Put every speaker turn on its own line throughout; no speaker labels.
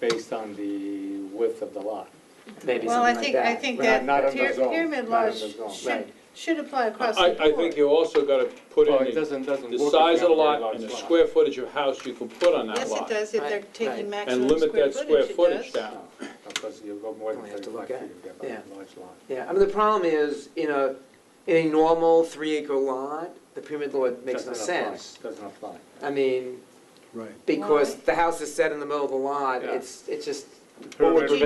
based on the width of the lot.
maybe
Well, I
something like
think, I
that.
think
Not-
that
not in the
pyra-
zone,
pyramid
not in
laws
the zone.
should,
Right.
should apply across the
I,
board.
I think you also gotta put
Well,
in
it
the,
doesn't, doesn't
the
work if
size of
you
the
have a very
lot and the
large lot.
square footage of house you can put on that
Yes, it
lot.
does, if they're
Right, right.
taking
And
And
maximum
limit
square
that square
footage,
footage
it does.
down.
Because you go more than
We have to
thirty-five
look
feet
at it.
if you
Yeah.
have a large lot.
Yeah, I mean, the problem is, in a, in a normal three-acre lot, the pyramid law makes
Doesn't
no
apply.
sense.
Doesn't apply.
I mean,
Right.
because
Why?
the house is set in the middle of the lot,
Yeah.
it's, it's just,
You just,
Pyramid
you
will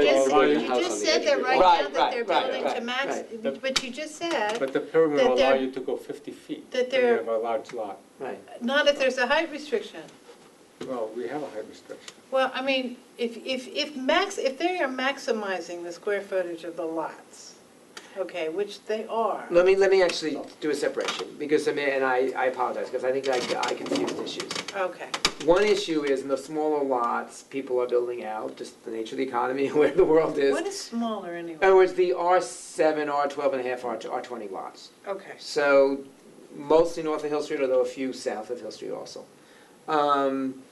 allow
just said that right
Right,
now that they're
right, right,
building to
right,
max,
right.
but you just
you-
said,
But the pyramid
that
will allow
they're-
you to go fifty feet
that
if you
they're-
have a large lot.
right,
not if there's a height restriction.
Well, we have a height restriction.
Well, I mean, if, if, if max, if they are maximizing the square footage of the lots, okay, which they are.
let me, let me actually do a separation, because I mean, and I, I apologize, because I think I, I confused issues.
Okay,
One issue is in the smaller lots, people are building out, just the nature of the economy, where the world is.
what
In
is smaller anyway?
other words, the R seven, R twelve and a half, R, R twenty lots.
Okay,
So mostly north of Hill Street, although a few south of Hill Street also. Um,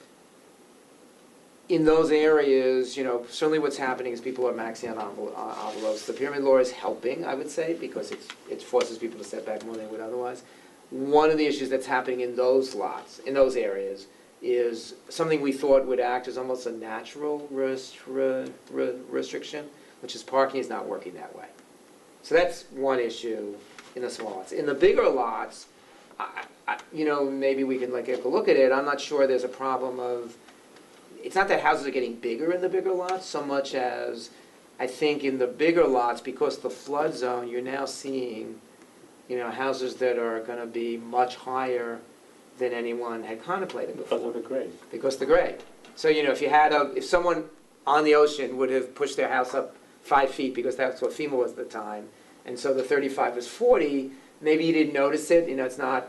In those areas, you know, certainly what's happening is people are maxing out envel- uh, envelopes. The pyramid law is helping, I would say, because it's, it forces people to step back more than they would otherwise. One of the issues that's happening in those lots, in those areas, is something we thought would act as almost a natural rest, re- re- restriction, which is parking is not working that way. So that's one issue in the small lots. In the bigger lots, I, I, you know, maybe we can like take a look at it, I'm not sure there's a problem of, it's not that houses are getting bigger in the bigger lots so much as, I think in the bigger lots, because the flood zone, you're now seeing, you know, houses that are gonna be much higher than anyone had contemplated before
Because of the grade.
because the grade. So, you know, if you had a, if someone on the ocean would have pushed their house up five feet, because that's what FEMA was at the time, and so the thirty-five was forty, maybe you didn't notice it, you know, it's not,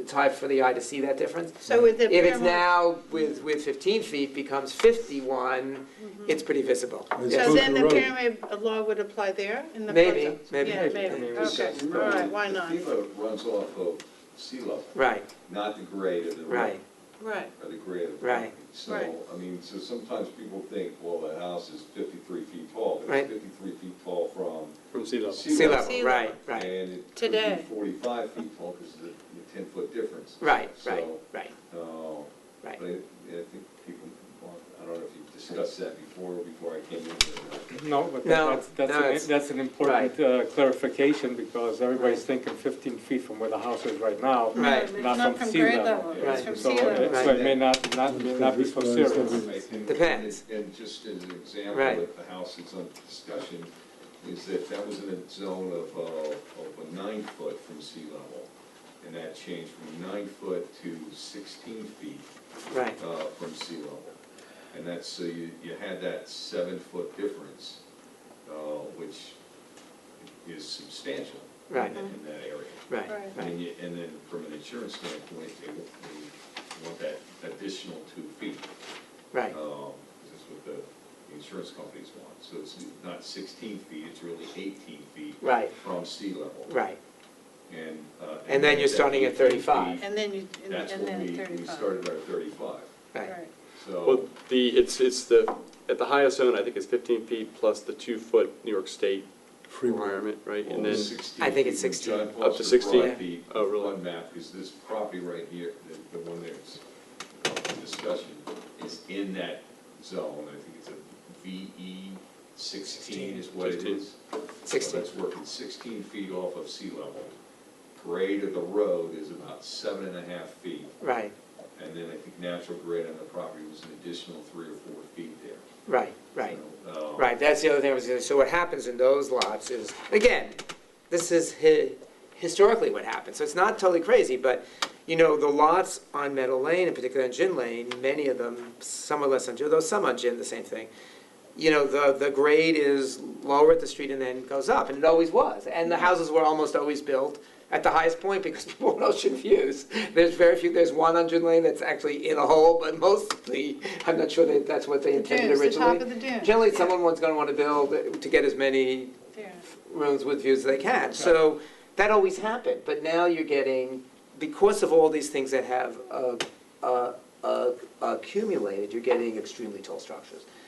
it's hard for the eye to see that difference.
so with the.
If it's
pyramid-
now with, with fifteen feet becomes fifty-one, it's pretty visible.
It's
Yeah.
So
Goes
then
to
the
road.
pyramid law would apply there in the
Maybe,
project?
maybe.
Yeah, maybe,
Maybe.
okay, all right, why not?
The FEMA runs off of sea level,
Right,
not the grade of the
right,
road,
Right,
or the grade of the
Right.
property.
Right.
So, I mean, so sometimes people think, well, the house is fifty-three feet tall, but
Right.
it's fifty-three feet tall from
From sea level.
sea
sea
level.
level, right,
And
right,
it could
Today.
be forty-five feet tall because of the ten-foot difference.
right, right,
So,
right,
uh,
right.
but I I think people, I don't know if you've discussed that before, before I came in. here.
No, but
No,
that's, that's,
no, it's-
an- that's an important uh, clarification, because everybody's thinking fifteen feet from where the house is right now.
Right.
Not
not
from
from
sea
grade
level.
level, it's
Right.
from
So,
sea
it-
level.
so it may not, not, may not be so serious.
I think-
Depends.
And and just as an example,
Right.
if the house that's on discussion, is that that was in a zone of, uh, of a nine foot from sea level. And that changed from nine foot to sixteen feet,
Right,
uh, from sea level. And that's, so you, you had that seven foot difference, uh, which is substantial in
Right.
that- in that area.
right,
Right.
right,
And you, and then from an insurance standpoint, they want- they want that additional two feet.
right,
Um, This is what the the insurance companies want. So it's not 16 feet, it's really 18 feet
right,
from sea level.
right.
And. uh,
And then you're
that
starting at
18
35.
feet,
And then you, and
That's
and
what
then
we, we
thirty-five.
started our 35.
Right.
Right.
So,
Well, the, it's, it's the, at the highest zone, I think it's fifteen feet plus the two-foot New York State
Free will.
requirement, right?
well,
And
the
then,
16.
I think it's
feet,
16.
John
Up to
Foster
16?
brought the
Oh, really?
flood map, is this property right here, the, the one that's up for discussion, is in that zone. I think it's a VE 16 is what it
16.
is. So
Sixteen,
that's working sixteen feet off of sea level. Grade of the road is about seven and a half feet,
right,
and then I think natural grade on the property was an additional three or four feet there.
right, right.
So, uh,
Right, that's the other thing I was gonna, so what happens in those lots is, again, this is hi- historically what happened, so it's not totally crazy, but, you know, the lots on Meadow Lane, in particular on Gin Lane, many of them, some are less on Gin, though some on Gin, the same thing. You know, the, the grade is lower at the street and then goes up, and it always was, and the houses were almost always built at the highest point because people had ocean views. There's very few, there's one on Gin Lane that's actually in a hole, but mostly, I'm not sure that that's what they
The
intended
dunes,
originally.
the top of the dunes.
Generally,
Yeah,
someone wants gonna wanna build to get as many
yeah.
rooms with views as they can. So that always happened, but now you're getting, because of all these things that have uh, uh, uh, accumulated, you're getting extremely tall structures.